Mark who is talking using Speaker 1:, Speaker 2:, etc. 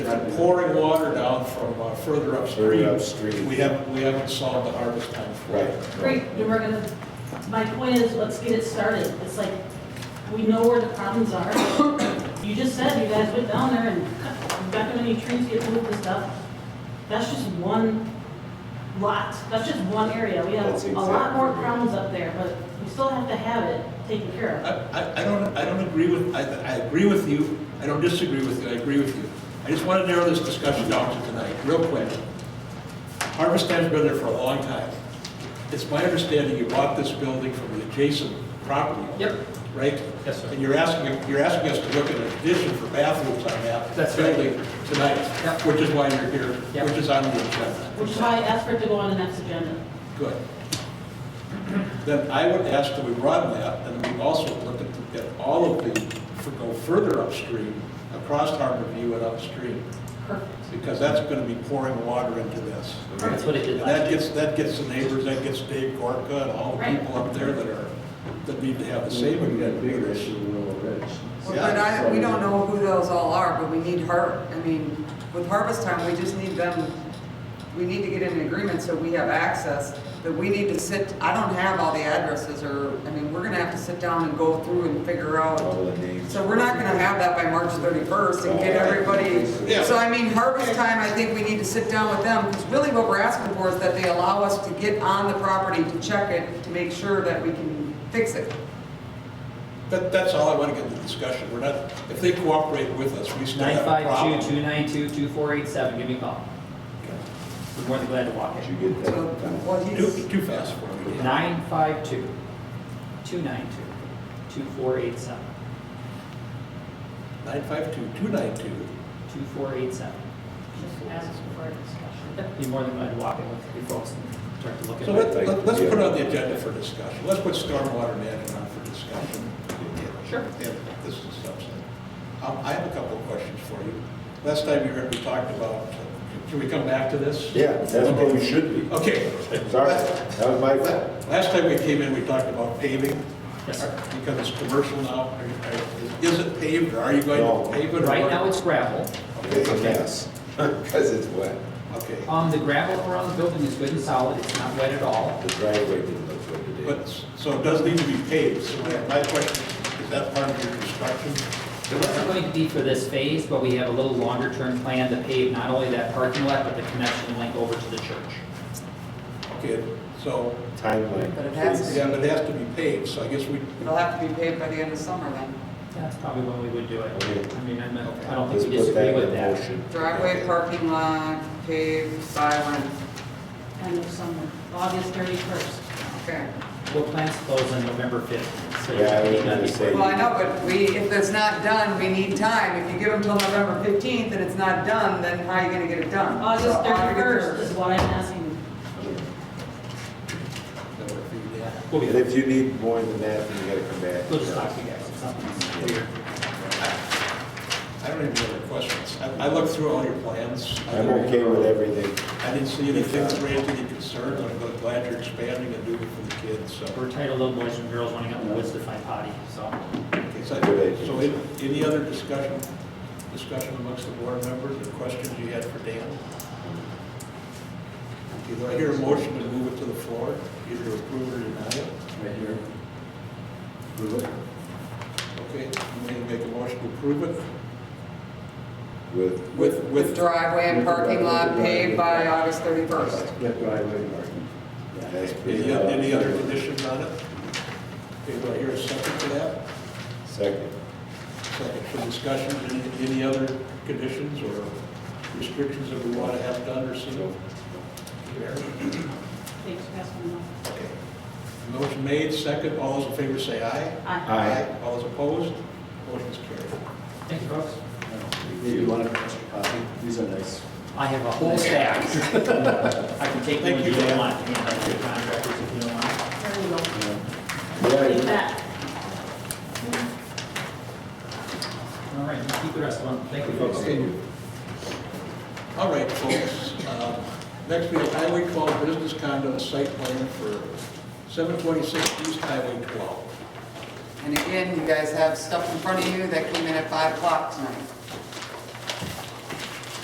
Speaker 1: pouring water down from uh, further upstream.
Speaker 2: Further upstream.
Speaker 1: We haven't, we haven't solved the harvest time for
Speaker 2: Right.
Speaker 1: it.
Speaker 3: Great, then we're gonna, my point is, let's get it started. It's like, we know where the problems are. You just said you guys went down there and cut- you got too many trees, get moved and stuff. That's just one lot, that's just one area. We have
Speaker 2: That's
Speaker 3: a lot
Speaker 2: exactly
Speaker 3: more
Speaker 2: right.
Speaker 3: problems up there, but we still have to have it taken care
Speaker 1: I,
Speaker 3: of.
Speaker 1: I- I don't, I don't agree with, I, I agree with you, I don't disagree with you, I agree with you. I just want to narrow this discussion down to tonight, real quick. Harvest time's been there for a long time. It's my understanding you bought this building from the adjacent property.
Speaker 4: Yep.
Speaker 1: Right?
Speaker 4: Yes, sir.
Speaker 1: And you're asking, you're asking us to look at an addition for bathrooms on that
Speaker 4: That's right.
Speaker 1: building tonight,
Speaker 4: Yep.
Speaker 1: which is why you're here,
Speaker 4: Yep.
Speaker 1: which is on the agenda.
Speaker 3: Which is why I asked for it to go on the next agenda.
Speaker 1: Good. Then I would ask that we broaden that, and we also look at, at all of the, for- go further upstream, across Harbor View and upstream,
Speaker 3: Perfect.
Speaker 1: because that's gonna be pouring water into this.
Speaker 4: That's what it
Speaker 1: And
Speaker 4: did
Speaker 1: that
Speaker 4: last year.
Speaker 1: gets, that gets the neighbors, that gets Dave Gorka and all the
Speaker 3: Right.
Speaker 1: people up there that are, that need to have the same
Speaker 2: We got a bigger
Speaker 1: agreement.
Speaker 2: issue in Willow Ridge.
Speaker 5: Well, But I, we don't know who those all are, but we need her, I mean, with harvest time, we just need them, we need to get an agreement so we have access, that we need to sit, I don't have all the addresses, or, I mean, we're gonna have to sit down and go through and figure out.
Speaker 2: All the names.
Speaker 5: So we're not gonna have that by March thirty-first and get everybody,
Speaker 1: Yeah.
Speaker 5: so I mean, harvest time, I think we need to sit down with them, because really what we're asking for is that they allow us to get on the property to check it, to make sure that we can fix it.
Speaker 1: That, that's all I wanna get in the discussion, we're not, if they cooperate with us, we still have a problem.
Speaker 4: 952-292-2487, give me a call. We're more than glad to walk
Speaker 2: Did
Speaker 4: it.
Speaker 2: you get
Speaker 5: So,
Speaker 2: that done?
Speaker 5: well, he's.
Speaker 1: Too, too fast for me.
Speaker 4: 952-292-2487,
Speaker 1: Nine five two, two nine two.
Speaker 4: 2487.
Speaker 3: Just ask for a discussion.
Speaker 4: Be more than glad to walk it with you folks and start to look at
Speaker 1: So
Speaker 4: it.
Speaker 1: let- let- let's put on the agenda for discussion. Let's put stormwater management on for discussion.
Speaker 4: Sure.
Speaker 1: If this is something. Um, I have a couple of questions for you. Last time you heard, we talked about, can we come back to this?
Speaker 2: Yeah, that's what we should be.
Speaker 1: Okay.
Speaker 2: Sorry, that was my fault.
Speaker 1: Last time we came in, we talked about paving. Uh,
Speaker 4: Yes, sir.
Speaker 1: Because it's commercial now. Are you- are- Is it paved or are you going
Speaker 2: No.
Speaker 1: to pave it? or-
Speaker 4: Right now, it's gravel.
Speaker 2: It's a mess, because it's wet.
Speaker 1: Okay.
Speaker 4: Um, the gravel around the building is good and solid, it's not wet at all.
Speaker 2: The driveway didn't look good today.
Speaker 1: But, so it does need to be paved. So my question, is that part of your construction?
Speaker 4: It wasn't going to be for this phase, but we have a little longer-term plan to pave not only that parking lot, but the connection link over to the church.
Speaker 1: Okay, so
Speaker 2: Timeline.
Speaker 5: But it has to be.
Speaker 1: Yeah, but it has to be paved, so I guess we,
Speaker 5: It'll have to be paved by the end of summer then.
Speaker 4: That's probably when we would do it.
Speaker 2: Okay.
Speaker 4: I mean, I'm not- I don't
Speaker 2: Let's
Speaker 4: think we
Speaker 2: put that
Speaker 4: disagree
Speaker 2: in
Speaker 4: with
Speaker 2: the
Speaker 4: that.
Speaker 2: motion.
Speaker 5: Driveway, parking lot, paved, island,
Speaker 3: End of summer, August 31st.
Speaker 5: okay.
Speaker 4: Well, plans close on November 5th. so
Speaker 2: Yeah, I was
Speaker 4: you
Speaker 2: gonna
Speaker 4: gotta be-
Speaker 2: say-
Speaker 5: Well, I know, but we, if it's not done, we need time. If you give them till November fifteenth and it's not done, then how are you gonna get it done?
Speaker 3: August
Speaker 5: So,
Speaker 3: 31st is what I'm asking.
Speaker 4: We'll be
Speaker 2: And
Speaker 4: there.
Speaker 2: if you need more than that, then you gotta come back.
Speaker 4: We'll just talk to you guys. It's not-
Speaker 2: Yeah.
Speaker 1: I don't even have any questions. I, I looked through all your plans. I
Speaker 2: I'm
Speaker 1: didn't-
Speaker 2: okay with everything.
Speaker 1: I didn't see anything that raised any concerns, I'm gl- glad you're expanding and doing it for the kids, so.
Speaker 4: We're tired of little boys and girls running out in the woods to find potty, so.
Speaker 1: Okay, So,
Speaker 2: Good idea.
Speaker 1: so any- any other discussion, discussion amongst the board members, or questions you had for Dan? Okay, Do I hear a motion to move it to the floor, either to approve or deny it?
Speaker 6: Right here. Approve it.
Speaker 1: Okay, I'm going to make a motion to approve it
Speaker 2: With,
Speaker 1: with,
Speaker 5: With
Speaker 1: with
Speaker 5: driveway and parking lot paved by August thirty-first.
Speaker 6: That driveway marking.
Speaker 2: that's pretty.
Speaker 1: Any, any other conditions on it? Okay, do I hear a second to that?
Speaker 2: Second.
Speaker 1: Second for discussion, any, any other conditions or restrictions that we want to have done or seen?
Speaker 3: Thanks, Councilman Moore.
Speaker 1: Okay. Motion made, second, all those in favor say aye.
Speaker 3: Aye.
Speaker 2: Aye.
Speaker 1: All those opposed, motion's carried.
Speaker 4: Thank you, folks.
Speaker 6: Maybe you want an extra copy? These are nice.
Speaker 4: I have a whole stack. I can take one
Speaker 1: Thank
Speaker 4: if
Speaker 1: you,
Speaker 4: you don't
Speaker 1: Dan.
Speaker 4: want. Yeah, I'll take contractors if you don't want.
Speaker 3: There we go. Take
Speaker 2: Yeah,
Speaker 3: that.
Speaker 4: All right, keep the rest of them. Thank you, folks.
Speaker 1: Okay. All right, folks, um, next we have Highway 12 Business Condo Site Plan for 726 East Highway 12.
Speaker 5: And again, you guys have stuff in front of you that came in at five o'clock tonight.